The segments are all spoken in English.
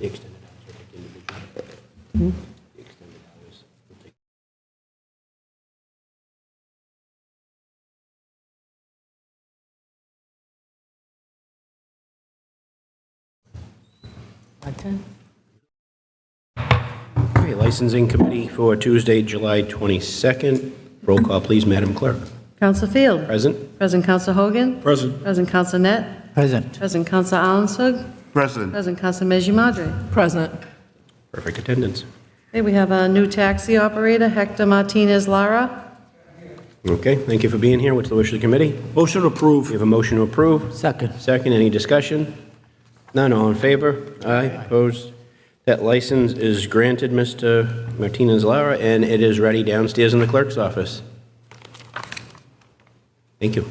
The extended hours are like individual. The extended hours will take What time? Okay, Licensing Committee for Tuesday, July 22nd. Roll call, please, Madam Clerk. Counsel Field. Present? President Counsel Hogan. Present. President Counsel Net. Present. President Counsel Alanson. President. President Counsel Mezimadri. Present. Perfect attendance. Okay, we have a new taxi operator, Hector Martinez Lara. Okay, thank you for being here. What's the wish of the committee? Motion to We approve. have a motion to approve. Second. Second, any discussion? None, all in favor? Aye, opposed? That license is granted, Mr. Martinez Lara, and it is ready downstairs in the clerk's office. Thank you.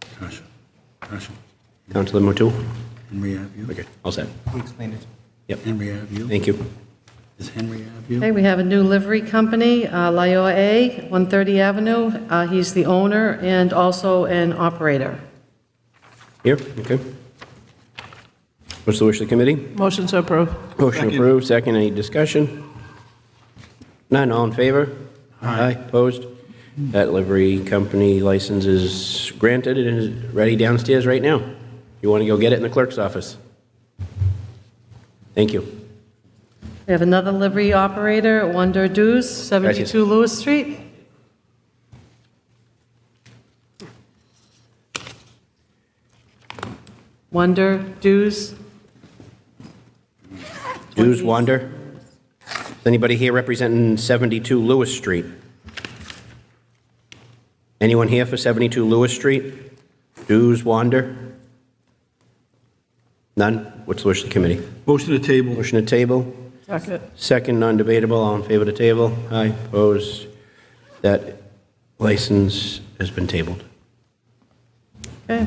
Tasha, Tasha, Counselor Motul? Henry Ave. Okay, all set. We explained it. Yep, Henry Ave. thank you. Is Henry Ave? Okay, we have a new livery company, uh, Lioa A, 130 Avenue. Uh, He's the owner and also an operator. Here, okay. What's the wish of the committee? Motion to approve. Motion Second. approved, second, any discussion? None, all in favor? Aye. Opposed? That livery company license is granted and is ready downstairs right now. You want to go get it in the clerk's office? Thank you. We have another livery operator, Wonder Dews, 72 Lewis Street. Wonder Dews, Dues wander? Is Anybody here representing 72 Lewis Street? Anyone here for 72 Lewis Street? Dues wander? None? What's the wish of the committee? Motion to table. Motion to table? Second. Second, non-debatable, all in favor to table? Aye, opposed? That license has been tabled. okay.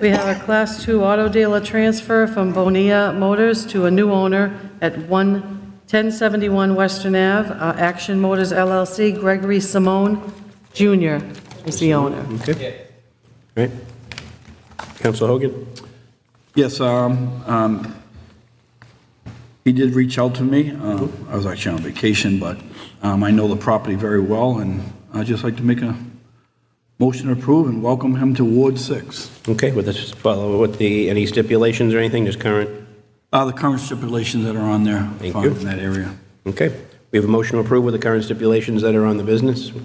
We have a Class 2 auto dealer transfer from Bonilla Motors to a new owner at 1 1071 Western Ave, Uh, Action Motors LLC, Gregory Simone Jr. is the owner. Okay? All right. Counsel Hogan? Yes, um, um, he did reach out to me. Uh, I was actually on vacation, but um, I know the property very well, and I'd just like to make a motion to approve and welcome him to Ward 6. Okay, with this, follow with the, any stipulations or anything, just current? Uh, The current stipulations that are on there Thank fine, you. in that area. Okay. We have a motion to approve with the current stipulations that are on the business. Do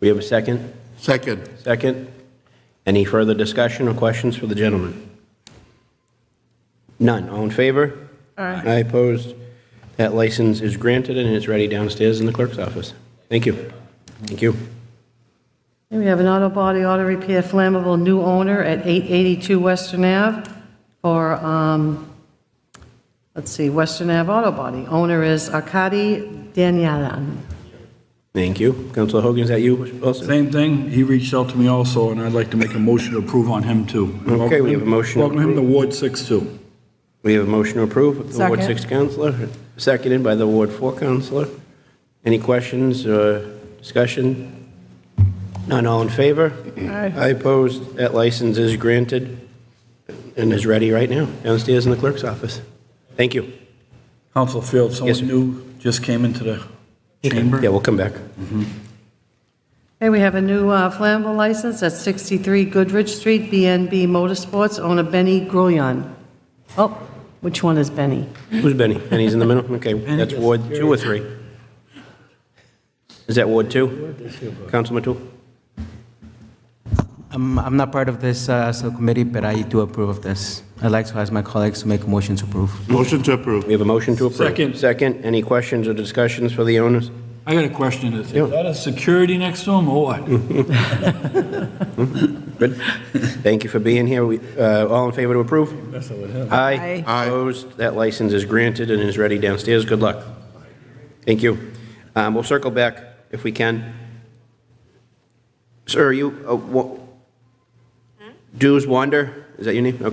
we have a second? Second. Second. Any further discussion or questions for the gentleman? None. All in favor? Aye. Aye opposed. That license is granted and it's ready downstairs in the clerk's office. Thank you. Thank you. And we have an auto body auto repair flammable new owner at 882 Western Ave for, um, let's see, Western Ave Auto Body. Owner is Arkady Danyalan. Thank you. Counselor Hogan, is that you also? Same thing, he reached out to me also, and I'd like to make a motion to approve on him too. Okay, we have a motion to Welcome him to Ward 6 too. We have a motion to approve. The Ward Second. 6 counselor, seconded by the Ward 4 counselor. Any questions or discussion? None, all in favor? Aye. I oppose. That license is granted and is ready right now downstairs in the clerk's office. Thank you. Council Field, Yes, sir. someone new just came into the chamber. Yeah, we'll come back. Okay, we have a new uh, flammable license at 63 Goodrich Street, BNB Motorsports, owner Benny Grouillon. Oh, which one is Benny? Who's Benny? Benny's in the middle? Okay, that's Ward 2 or 3? Is that Ward 2? Councilman Matul? I'm, I'm not part of this uh, subcommittee, but I do approve of this. I'd like to ask my colleagues to make a motion to approve. Motion to approve. We have a motion to approve. Second. Second, any questions or discussions for the owners? I got a question, is Yeah. is that a security next to him or what? Good. Thank you for being here. We, uh, All in favor to approve? Aye. Aye. Opposed? That license is granted and is ready downstairs. Good luck. Thank you. Um, We'll circle back if we can. Sir, are you, uh, wa- Dues Wander, is that your name? Okay.